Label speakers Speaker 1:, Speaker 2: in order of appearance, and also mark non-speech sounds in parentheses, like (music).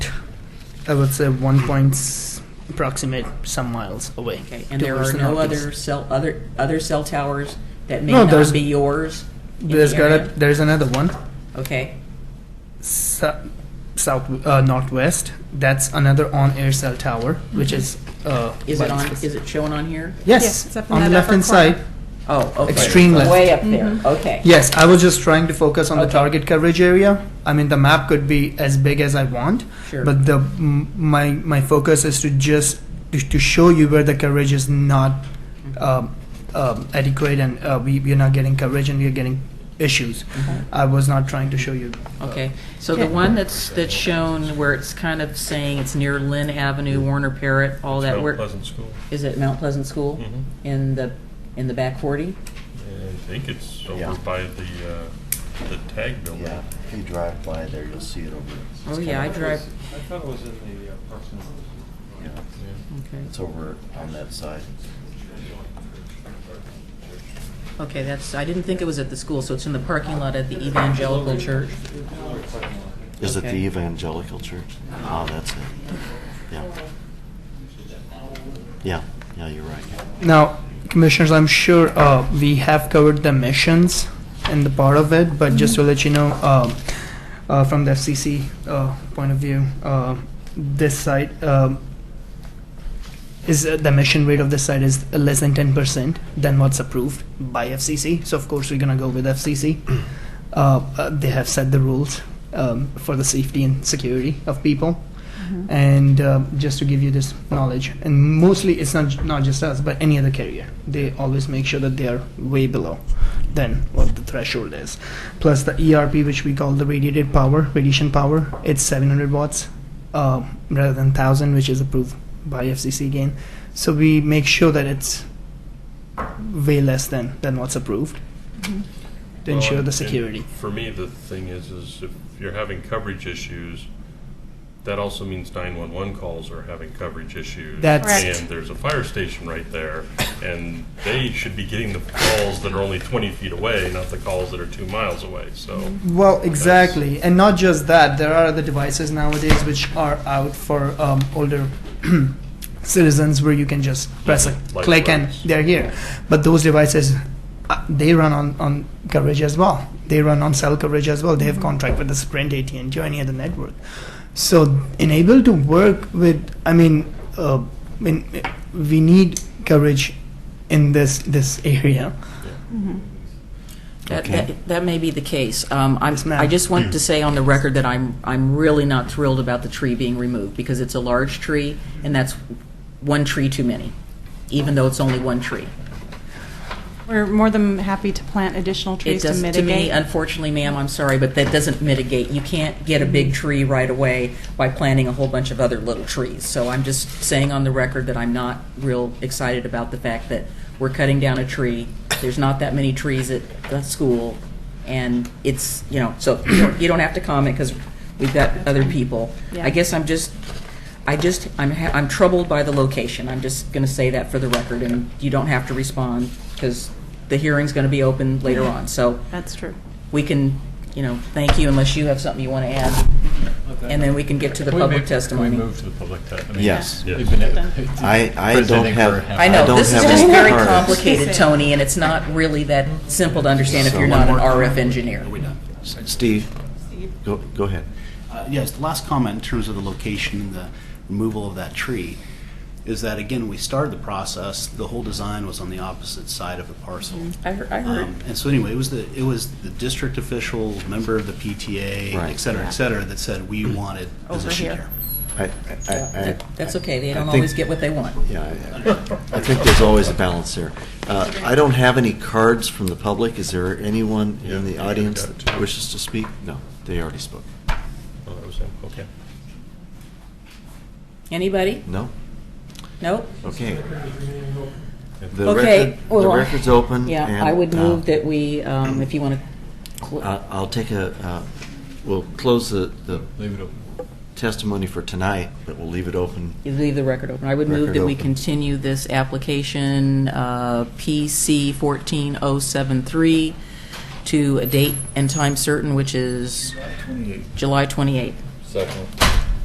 Speaker 1: I would say one point approximate some miles away.
Speaker 2: Okay,
Speaker 1: towards
Speaker 2: and there are
Speaker 1: the
Speaker 2: no
Speaker 1: northeast.
Speaker 2: other cell, other, other cell towers that may
Speaker 1: No,
Speaker 2: not
Speaker 1: there's-
Speaker 2: be yours in the
Speaker 1: There's got a,
Speaker 2: area?
Speaker 1: there's another one
Speaker 2: Okay,
Speaker 1: sou- south uh, northwest. That's another on-air cell tower, which is. Uh,
Speaker 2: Mm-hmm. is it
Speaker 1: by
Speaker 2: on,
Speaker 1: space.
Speaker 2: is it shown on here?
Speaker 1: Yes,
Speaker 3: Yes, it's up in
Speaker 1: on the
Speaker 3: that
Speaker 1: left
Speaker 3: upper
Speaker 1: hand
Speaker 3: corner.
Speaker 1: side.
Speaker 2: Oh, okay.
Speaker 1: Extreme left.
Speaker 2: Way up there, Mm-hmm. okay.
Speaker 1: Yes, I was just trying to focus on the
Speaker 2: Okay.
Speaker 1: target coverage area. I mean, the map could be as big as I want,
Speaker 2: Sure.
Speaker 1: but the m- my my focus is to just to, to show you where the coverage is not
Speaker 2: Mm-hmm.
Speaker 1: um, um, adequate and uh, we we're not getting coverage and we're getting issues.
Speaker 2: Mm-hmm.
Speaker 1: I was not trying to show you. uh,
Speaker 2: Okay, so the one that's, that's shown where it's kind of saying it's near Lynn Avenue, Warner Parrot, all that,
Speaker 4: Mount
Speaker 2: where,
Speaker 4: Pleasant School.
Speaker 2: is it Mount Pleasant School?
Speaker 5: Mm-hmm.
Speaker 4: Mhm.
Speaker 2: In the, in the back forty?
Speaker 4: I think it's over
Speaker 6: Yeah.
Speaker 4: by the, uh, the tag building.
Speaker 6: Yeah, if you drive by there, you'll see it over. it's
Speaker 2: Oh,
Speaker 6: kind
Speaker 2: yeah, I
Speaker 6: of-
Speaker 2: drive,
Speaker 7: I thought it was in the uh, Parks and
Speaker 6: Yeah,
Speaker 2: okay.
Speaker 6: it's over on that side.
Speaker 2: Okay, that's, I didn't think it was at the school, so it's in the parking lot at the Evangelical Church.
Speaker 6: Is it the
Speaker 2: Okay.
Speaker 6: evangelical church? Oh, that's it. Yeah. Yeah, yeah, you're right.
Speaker 1: Now, commissioners, I'm sure uh, we have covered the missions and the part of it, but just to let you know, um, uh, from the FCC uh, point of view, uh, this site um, is uh, the mission rate of this site is less than 10% than what's approved by FCC. So of course we're gonna go with FCC. Uh, uh, they have set the rules um, for the safety and security of people and uh, just to give you this knowledge and mostly it's not not just us but any other carrier they always make sure that they are way below than what the threshold is plus the erp which we call the radiated power radiation power it's 700 watts uh, rather than 1000 which is approved by fcc again so we make sure that it's way less than than what's approved to
Speaker 4: Well,
Speaker 1: ensure
Speaker 4: and-
Speaker 1: the
Speaker 4: and
Speaker 1: security
Speaker 4: For me, the thing is, is if you're having coverage issues, that also means 911 calls are having coverage issues.
Speaker 1: That's-
Speaker 3: Correct.
Speaker 4: And there's a fire station right there, and they should be getting the calls that are only 20 feet away, not the calls that are two miles away, so.
Speaker 1: Well, exactly, and not just that. There are other devices nowadays which are out for um, older (clears throat) citizens where you can just press a
Speaker 4: Like
Speaker 1: click and
Speaker 4: those.
Speaker 1: they're here. But those devices, uh, they run on on coverage as well. They run on cell coverage as well. They have contract with the Sprint, AT and T, or any other network. So enable to work with. I mean, uh, I mean, we need coverage in this this area.
Speaker 2: That,
Speaker 6: Okay.
Speaker 2: that, that may be the case. Um, I'm,
Speaker 1: Yes, ma'am.
Speaker 2: I just want to
Speaker 1: (clears throat)
Speaker 2: say on the record that I'm, I'm really not thrilled about the tree being removed because it's a large tree and that's one tree too many, even though it's only one tree.
Speaker 3: We're more than happy to plant additional
Speaker 2: It
Speaker 3: trees to
Speaker 2: does, to me,
Speaker 3: mitigate.
Speaker 2: unfortunately, ma'am, I'm sorry, but that doesn't mitigate. You can't get a big tree right away by planting a whole bunch of other little trees. So I'm just saying on the record that I'm not real excited about the fact that we're cutting down a tree. There's not that many trees at the school, and it's, you know, so you don't- you don't have to comment because we've got other people.
Speaker 3: Yeah.
Speaker 2: I guess I'm just, I just, I'm, ha- I'm troubled by the location. I'm just going to say that for the record, and you don't have to respond because the hearing's going to be open later on. So
Speaker 3: That's true.
Speaker 2: we can, you know, thank you unless you have something you want to add, and then we can get to the
Speaker 5: Can we
Speaker 2: public
Speaker 5: move- can we
Speaker 2: testimony.
Speaker 5: move to the public testimony?
Speaker 6: Yes.
Speaker 4: Yes.
Speaker 6: I, I don't have.
Speaker 2: I know,
Speaker 6: don't
Speaker 2: this is
Speaker 6: have
Speaker 2: just
Speaker 6: a
Speaker 2: very
Speaker 6: card.
Speaker 2: complicated, Tony, and it's not really that simple to understand if
Speaker 6: So-
Speaker 2: you're not an RF engineer.
Speaker 6: Steve, go, go ahead.
Speaker 8: Uh, Yes, the last comment in terms of the location and the removal of that tree is that, again, when we started the process, the whole design was on the opposite side of the parcel.
Speaker 2: I heard, I heard.
Speaker 8: Um, And so anyway, it was the, it was the district official, member of the PTA,
Speaker 6: Right.
Speaker 8: et cetera, et cetera, that said we wanted position
Speaker 3: here.
Speaker 8: here.
Speaker 6: I, I, I.
Speaker 2: That- That's okay, they
Speaker 6: I
Speaker 2: don't
Speaker 6: think-
Speaker 2: always get what they want.
Speaker 6: Yeah, I- I think there's always a balance there. Uh, I don't have any cards from the public. Is there anyone in the
Speaker 4: Yeah, I've
Speaker 6: audience
Speaker 4: got
Speaker 6: that
Speaker 4: two.
Speaker 6: wishes to speak? No, they already spoke.
Speaker 4: Oh, that was him, okay.
Speaker 2: Anybody?
Speaker 6: No?
Speaker 2: Nope?
Speaker 6: Okay. The
Speaker 2: Okay.
Speaker 6: record- The
Speaker 2: well,
Speaker 6: record's open.
Speaker 2: Yeah,
Speaker 6: and,
Speaker 2: I would
Speaker 6: uh,
Speaker 2: move that we, um, if you want to,
Speaker 6: uh, I'll take a, uh, we'll close the the
Speaker 5: Leave it open.
Speaker 6: testimony for tonight, but we'll leave it open.
Speaker 2: You leave the record open. I would move
Speaker 6: Record
Speaker 2: that we
Speaker 6: open.
Speaker 2: continue this application, uh, PC 14073, to a date and time certain, which is July 28th.
Speaker 5: Second.